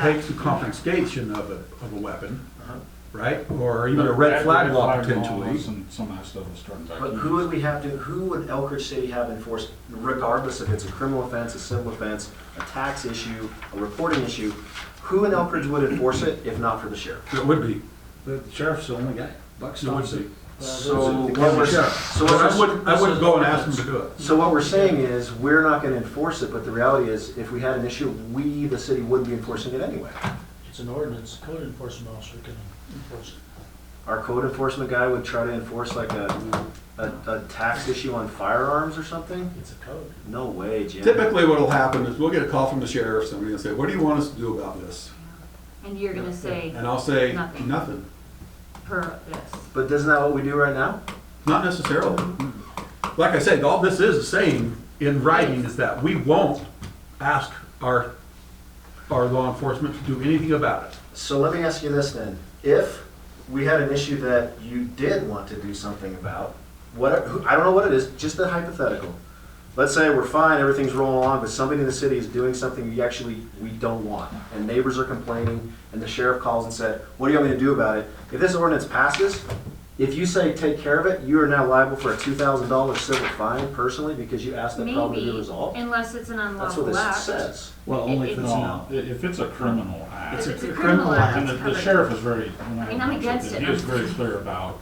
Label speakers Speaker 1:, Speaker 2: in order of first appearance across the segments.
Speaker 1: take the confiscation of a, of a weapon,
Speaker 2: Uh-huh.
Speaker 1: right? Or even a red flag law potentially.
Speaker 3: Some, some of that stuff is starting back.
Speaker 2: But who would we have to, who would Elkridge City have enforced, regardless if it's a criminal offense, a civil offense, a tax issue, a reporting issue, who in Elkridge would enforce it if not for the sheriff?
Speaker 1: It would be,
Speaker 4: The sheriff's the only guy. Buck
Speaker 1: it would
Speaker 4: stops it.
Speaker 1: be.
Speaker 2: So
Speaker 4: the
Speaker 2: what
Speaker 4: county
Speaker 2: we're,
Speaker 1: sheriff.
Speaker 2: so
Speaker 1: But
Speaker 2: what
Speaker 1: I
Speaker 2: we're,
Speaker 1: wouldn't, I wouldn't go and ask them to do it.
Speaker 2: so what we're saying is, we're not gonna enforce it, but the reality is, if we had an issue, we, the city, would be enforcing it anyway.
Speaker 5: It's an ordinance, code enforcement officer can enforce it.
Speaker 2: Our code enforcement guy would try to enforce like a, a, a tax issue on firearms or something?
Speaker 5: It's a code.
Speaker 2: No way, Jim.
Speaker 1: Typically what'll happen is we'll get a call from the sheriff, somebody will say, what do you want us to do about this?
Speaker 6: And you're gonna say
Speaker 1: And I'll say,
Speaker 6: Nothing.
Speaker 1: nothing.
Speaker 6: per this.
Speaker 2: But isn't that what we do right now?
Speaker 1: Not necessarily. Like I said, all this is saying in writing is that we won't ask our, our law enforcement to do anything about it.
Speaker 2: So let me ask you this then. If we had an issue that you did want to do something about, what, who- I don't know what it is, just a hypothetical. Let's say we're fine, everything's rolling along, but somebody in the city is doing something we actually, we don't want. And neighbors are complaining, and the sheriff calls and said, what do you want me to do about it? If this ordinance passes, if you say take care of it, you are now liable for a two thousand dollar civil fine personally because you asked that problem to
Speaker 6: Maybe,
Speaker 2: be resolved.
Speaker 6: unless it's an
Speaker 2: That's what
Speaker 6: unlawful
Speaker 2: this
Speaker 6: act.
Speaker 2: says.
Speaker 4: Well, only if it's
Speaker 3: No,
Speaker 4: not.
Speaker 3: i- if it's a criminal act.
Speaker 6: If it's a criminal act,
Speaker 3: And
Speaker 6: it's
Speaker 3: the- the
Speaker 6: covered.
Speaker 3: sheriff is very, when
Speaker 6: I mean, I'm
Speaker 3: I
Speaker 6: against it.
Speaker 3: he was very clear about,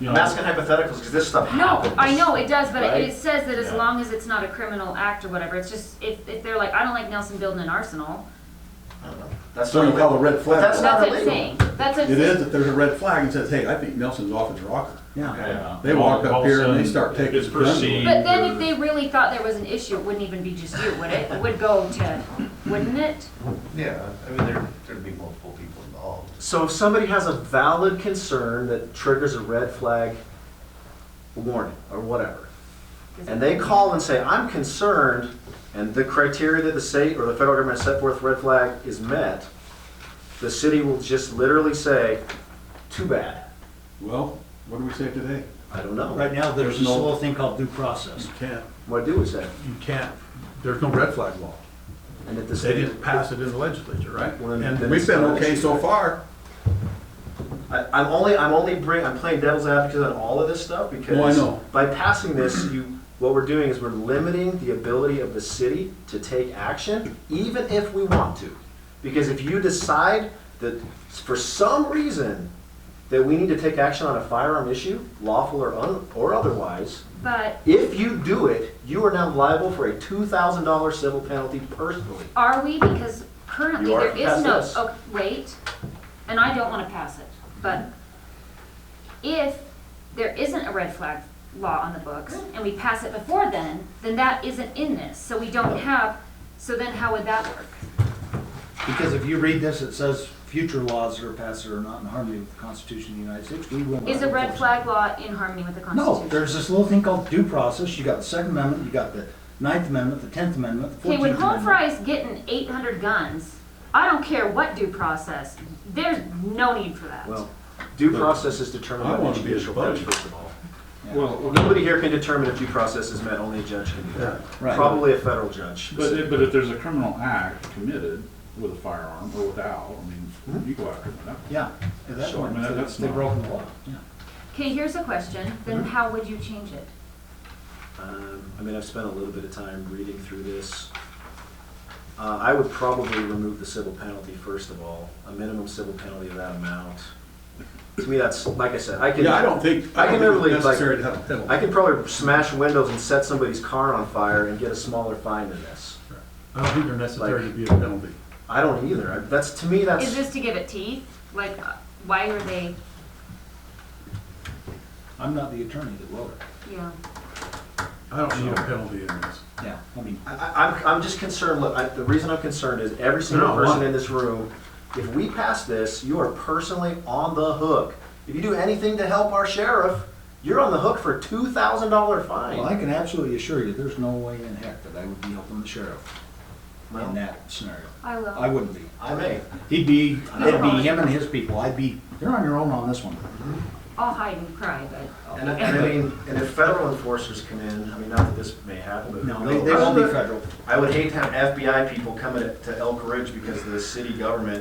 Speaker 3: you know.
Speaker 2: I'm asking hypotheticals because this stuff happens.
Speaker 6: No, I know, it does, but it-
Speaker 2: Right?
Speaker 6: it says that as
Speaker 3: Yeah.
Speaker 6: long as it's not a criminal act or whatever, it's just, if, if they're like, I don't like Nelson building an arsenal,
Speaker 2: That's
Speaker 1: So you
Speaker 2: what
Speaker 1: call a red flag.
Speaker 2: That's
Speaker 1: law.
Speaker 2: not
Speaker 6: that's what I'm
Speaker 2: illegal.
Speaker 6: saying. That's what,
Speaker 1: It is, if there's a red flag and says, hey, I think Nelson's off his rocker.
Speaker 4: Yeah.
Speaker 3: Yeah.
Speaker 1: They walk up
Speaker 3: All of a
Speaker 1: here and they
Speaker 3: sudden,
Speaker 1: start taking
Speaker 3: It's
Speaker 1: the gun away.
Speaker 3: perceived.
Speaker 6: but then if
Speaker 3: or-
Speaker 6: they really thought there was an issue, it wouldn't even be just you, would it? It would go to, wouldn't it?
Speaker 7: Yeah, I mean, there, there'd be multiple people involved.
Speaker 2: So if somebody has a valid concern that triggers a red flag warning or whatever, and they call and say, I'm concerned, and the criteria that the state or the federal government set forth red flag is met, the city will just literally say, too bad.
Speaker 1: Well, what do we say today?
Speaker 2: I don't know.
Speaker 4: Right now, there's
Speaker 1: There's
Speaker 4: this
Speaker 1: no-
Speaker 4: little thing called due process.
Speaker 1: You can't,
Speaker 2: What do we say?
Speaker 1: you can't, there's no red flag law.
Speaker 2: And if the
Speaker 1: They
Speaker 2: state,
Speaker 1: didn't pass it in the legislature, right?
Speaker 2: Well, then-
Speaker 1: And
Speaker 2: then
Speaker 1: we've
Speaker 2: it's
Speaker 1: been
Speaker 2: not an
Speaker 1: okay
Speaker 2: issue,
Speaker 1: so
Speaker 2: right?
Speaker 1: far.
Speaker 2: I, I'm only, I'm only bring, I'm playing devil's advocate on all of this stuff because
Speaker 1: Oh, I know.
Speaker 2: by passing this, you, what we're doing is we're limiting the ability of the city to take action, even if we want to. Because if you decide that for some reason that we need to take action on a firearm issue, lawful or un, or otherwise,
Speaker 6: But
Speaker 2: if you do it, you are now liable for a two thousand dollar civil penalty personally.
Speaker 6: are we, because currently
Speaker 2: You are
Speaker 6: there is no,
Speaker 2: past this.
Speaker 6: oh, wait, and I don't wanna pass it, but if there isn't a red flag law on the books
Speaker 4: Mm.
Speaker 6: and we pass it before then, then that isn't in this, so we don't have, so then how would that work?
Speaker 4: Because if you read this, it says future laws that are passed that are not in harmony with the Constitution of the United States, we will not.
Speaker 6: Is a red
Speaker 4: enforce
Speaker 6: flag law in harmony with the
Speaker 4: them. No,
Speaker 6: Constitution?
Speaker 4: there's this little thing called due process. You got the Second Amendment, you got the Ninth Amendment, the Tenth Amendment, the
Speaker 6: Okay,
Speaker 4: Fourteenth
Speaker 6: when Home
Speaker 4: Amendment.
Speaker 6: Fry's getting eight hundred guns, I don't care what due process, there's no need for that.
Speaker 2: Well, due process is determined
Speaker 1: I
Speaker 2: by
Speaker 1: wanna
Speaker 2: the
Speaker 1: be a
Speaker 2: judicial branch,
Speaker 1: judge.
Speaker 2: first of all.
Speaker 3: Well,
Speaker 2: Nobody here can determine if due process is met, only a judge can do that.
Speaker 4: Right.
Speaker 2: Probably a federal judge.
Speaker 3: but, if- but if there's a criminal act committed with a firearm or without, I mean,
Speaker 1: Mm-hmm.
Speaker 3: you go after them. that.
Speaker 4: Yeah, at that
Speaker 3: Sure,
Speaker 4: point,
Speaker 3: man, that's
Speaker 4: they've
Speaker 3: not-
Speaker 4: broken the law, yeah.
Speaker 6: Okay, here's a question, then
Speaker 2: Mm-hmm.
Speaker 6: how would you change it?
Speaker 2: Um, I mean, I've spent a little bit of time reading through this. Uh, I would probably remove the civil penalty first of all, a minimum civil penalty of that amount. To me, that's, like I said, I can.
Speaker 1: Yeah, I don't think, I
Speaker 2: I can
Speaker 1: don't think
Speaker 2: literally,
Speaker 1: it's necessary
Speaker 2: like,
Speaker 1: to have a penalty.
Speaker 2: I can probably smash windows and set somebody's car on fire and get a smaller fine than this.
Speaker 1: I don't think they're necessary to be a penalty.
Speaker 2: I don't either. I- That's, to me,
Speaker 6: Is
Speaker 2: that's,
Speaker 6: this to give it teeth? Like, uh, why are they,
Speaker 4: I'm not the attorney that wrote it.
Speaker 6: you know?
Speaker 1: I don't need a penalty in this.
Speaker 4: Yeah, I mean,
Speaker 2: I, I, I'm, I'm just concerned, look, I, the reason I'm concerned is every
Speaker 1: No,
Speaker 2: single
Speaker 1: why?
Speaker 2: person in this room, if we pass this, you are personally on the hook. If you do anything to help our sheriff, you're on the hook for two thousand dollar
Speaker 4: well, I
Speaker 2: fine.
Speaker 4: can absolutely assure you, there's no way in heck that I would be helping the sheriff
Speaker 2: Well,
Speaker 4: in that scenario.
Speaker 6: I will.
Speaker 4: I wouldn't be.
Speaker 2: I may.
Speaker 4: He'd be, it'd be him and his people, I'd be, you're on your own on this one.
Speaker 6: I'll hide and cry, but
Speaker 2: And, I- and I mean, and if federal enforcers come in, I mean, not that this may happen, but.
Speaker 4: No, they, they won't be federal.
Speaker 2: I would hate to have FBI people coming to- to Elk Ridge because the city government